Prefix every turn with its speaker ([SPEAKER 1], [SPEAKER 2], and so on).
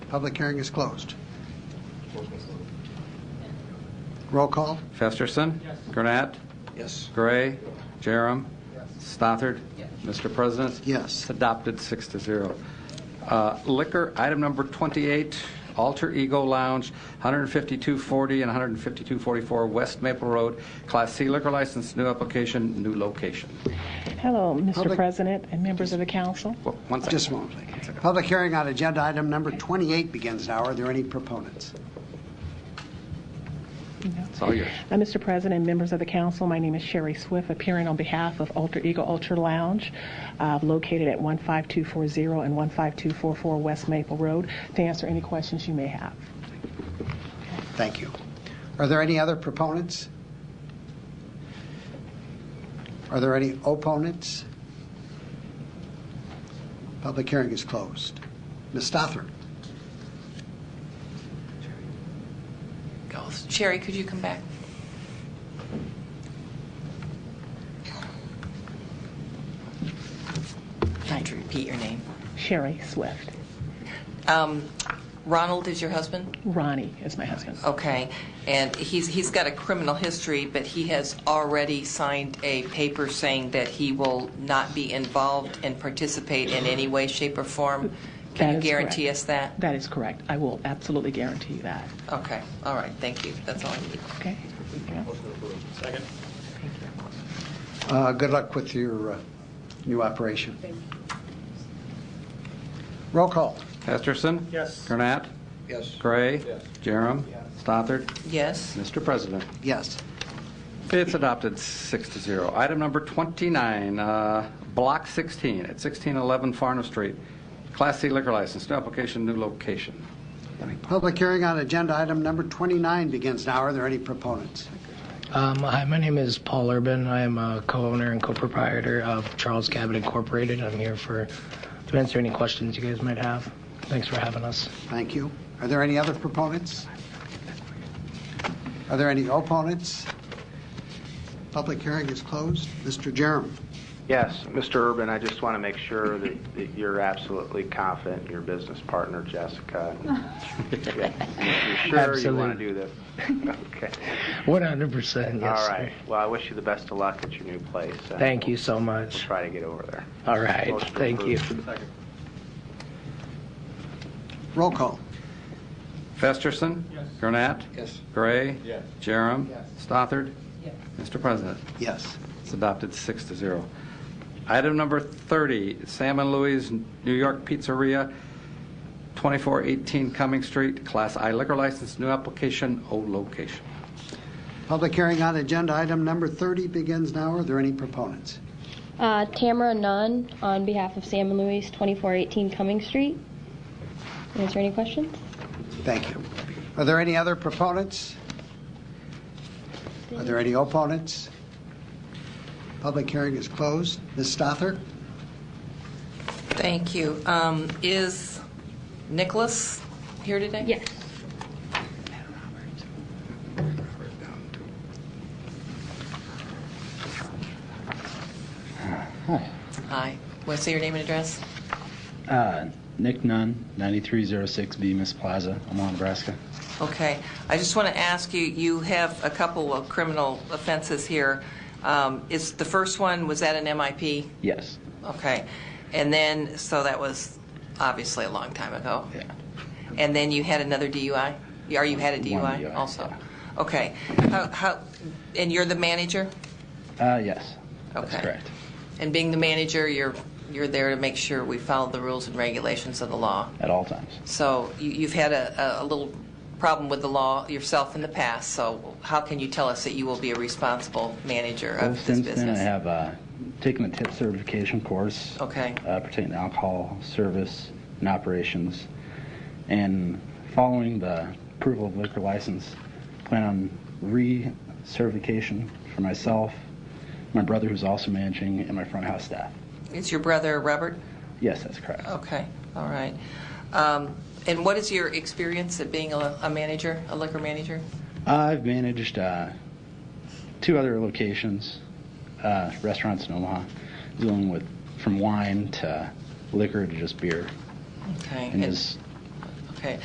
[SPEAKER 1] Public hearing is closed. Roll call?
[SPEAKER 2] Festerson. Yes. Gurnett.
[SPEAKER 1] Yes.
[SPEAKER 2] Gray. Jerem. Stothard. Mr. President.
[SPEAKER 1] Yes.
[SPEAKER 2] It's adopted six to zero. Uh, Liquor, item number 28, Alter Ego Lounge, 15240 and 15244 West Maple Road, Class C liquor license, new application, new location.
[SPEAKER 3] Hello, Mr.
[SPEAKER 1] Public-
[SPEAKER 3] President and members of the council.
[SPEAKER 2] Well, One second.
[SPEAKER 1] Just a moment, please. Public hearing on agenda item number 28 begins now. Are there any proponents?
[SPEAKER 2] It's all yours.
[SPEAKER 3] Uh, Mr. President and members of the council, my name is Sherry Swift, appearing on behalf of Alter Ego Ultra Lounge, uh, located at 15240 and 15244 West Maple Road, to answer any questions you may have.
[SPEAKER 1] Thank you. Are there any other proponents? Are there any opponents? Public hearing is closed. Ms. Stothard?
[SPEAKER 4] goes. Sherry, could you come back? Trying to repeat your name.
[SPEAKER 3] Sherry Swift.
[SPEAKER 4] Um, Ronald is your husband?
[SPEAKER 3] Ronnie is my husband.
[SPEAKER 4] Okay. And he's, he's got a criminal history, but he has already signed a paper saying that he will not be involved and participate in any way, shape, or form.
[SPEAKER 3] That
[SPEAKER 4] Can you
[SPEAKER 3] is
[SPEAKER 4] guarantee
[SPEAKER 3] correct.
[SPEAKER 4] us that?
[SPEAKER 3] That is correct. I will absolutely guarantee you that.
[SPEAKER 4] Okay. All right. Thank you. That's all I need.
[SPEAKER 3] Okay? Yeah.
[SPEAKER 1] Uh, Good luck with your uh, new operation. Roll call?
[SPEAKER 2] Festerson.
[SPEAKER 5] Yes.
[SPEAKER 2] Gurnett.
[SPEAKER 1] Yes.
[SPEAKER 2] Gray.
[SPEAKER 5] Yes.
[SPEAKER 2] Jerem. Stothard.
[SPEAKER 4] Yes?
[SPEAKER 2] Mr. President.
[SPEAKER 1] Yes.
[SPEAKER 2] It's adopted six to zero. Item number 29, uh, Block 16, at 1611 Farnham Street, Class C liquor license, new application, new location.
[SPEAKER 1] Public hearing on agenda item number 29 begins now. Are there any proponents?
[SPEAKER 6] Um, hi, my name is Paul Urban. I am a co-owner and co-proprietor of Charles Cabot Incorporated. I'm here for to answer any questions you guys might have. Thanks for having us.
[SPEAKER 1] Thank you. Are there any other proponents? Are there any opponents? Public hearing is closed. Mr. Jerem.
[SPEAKER 7] Yes, Mr. Urban, I just want to make sure that, that you're absolutely confident in your business partner, Jessica. You're sure you want to do this? Okay.
[SPEAKER 6] 100%. Yes.
[SPEAKER 7] All
[SPEAKER 6] sir.
[SPEAKER 7] right. Well, I wish you the best of luck at your new place. and
[SPEAKER 6] Thank you
[SPEAKER 7] we'll
[SPEAKER 6] so much.
[SPEAKER 7] Try to get over there.
[SPEAKER 6] All right.
[SPEAKER 7] Motion
[SPEAKER 6] Thank you.
[SPEAKER 7] approved.
[SPEAKER 1] Roll call.
[SPEAKER 2] Festerson. Yes. Gurnett.
[SPEAKER 1] Yes.
[SPEAKER 2] Gray.
[SPEAKER 5] Yes.
[SPEAKER 2] Jerem. Stothard. Mr. President,
[SPEAKER 1] Yes.
[SPEAKER 2] it's adopted six to zero. Item number 30, Sam and Louis New York Pizzeria, 2418 Cumming Street, Class I liquor license, new application, O location.
[SPEAKER 1] Public hearing on agenda item number 30 begins now. Are there any proponents?
[SPEAKER 8] Uh, Tamara Nunn on behalf of Sam and Louise, 2418 Cumming Street. Is there any questions?
[SPEAKER 1] Thank you. Are there any other proponents? Are there any opponents? Public hearing is closed. Ms. Stother?
[SPEAKER 4] Thank you. Um, Is Nicholas here today?
[SPEAKER 8] Yes.
[SPEAKER 4] Hi. Want to say your name and address?
[SPEAKER 9] Uh, Nick Nunn, 9306 Bemis Plaza, Omaha, Nebraska.
[SPEAKER 4] Okay. I just want to ask you, you have a couple of criminal offenses here. Um, Is, the first one, was that an MIP?
[SPEAKER 9] Yes.
[SPEAKER 4] Okay. And then, so that was obviously a long time ago.
[SPEAKER 9] Yeah.
[SPEAKER 4] And then you had another DUI? Or you had a DUI
[SPEAKER 9] DUI,
[SPEAKER 4] also?
[SPEAKER 9] yeah.
[SPEAKER 4] Okay. How, how, and you're the manager?
[SPEAKER 9] Uh, yes. That's
[SPEAKER 4] Okay.
[SPEAKER 9] correct.
[SPEAKER 4] And being the manager, you're, you're there to make sure we follow the rules and regulations of the law?
[SPEAKER 9] At all times.
[SPEAKER 4] So you- you've had a, a- a little problem with the law yourself in the past, so how can you tell us that you will be a responsible manager
[SPEAKER 9] Well,
[SPEAKER 4] of this
[SPEAKER 9] since
[SPEAKER 4] business?
[SPEAKER 9] then, I have uh, taken a tip certification course.
[SPEAKER 4] Okay.
[SPEAKER 9] Uh, pertaining to alcohol service and operations, and following the approval of liquor license, plan on re-certification for myself, my brother who's also managing, and my front house staff.
[SPEAKER 4] It's your brother, Robert?
[SPEAKER 9] Yes, that's correct.
[SPEAKER 4] Okay, all right. Um, And what is your experience at being a a manager, a liquor manager?
[SPEAKER 9] I've managed uh, two other locations, uh, restaurants in Omaha, dealing with from wine to liquor to just beer,
[SPEAKER 4] Okay.
[SPEAKER 9] and
[SPEAKER 4] and-
[SPEAKER 9] just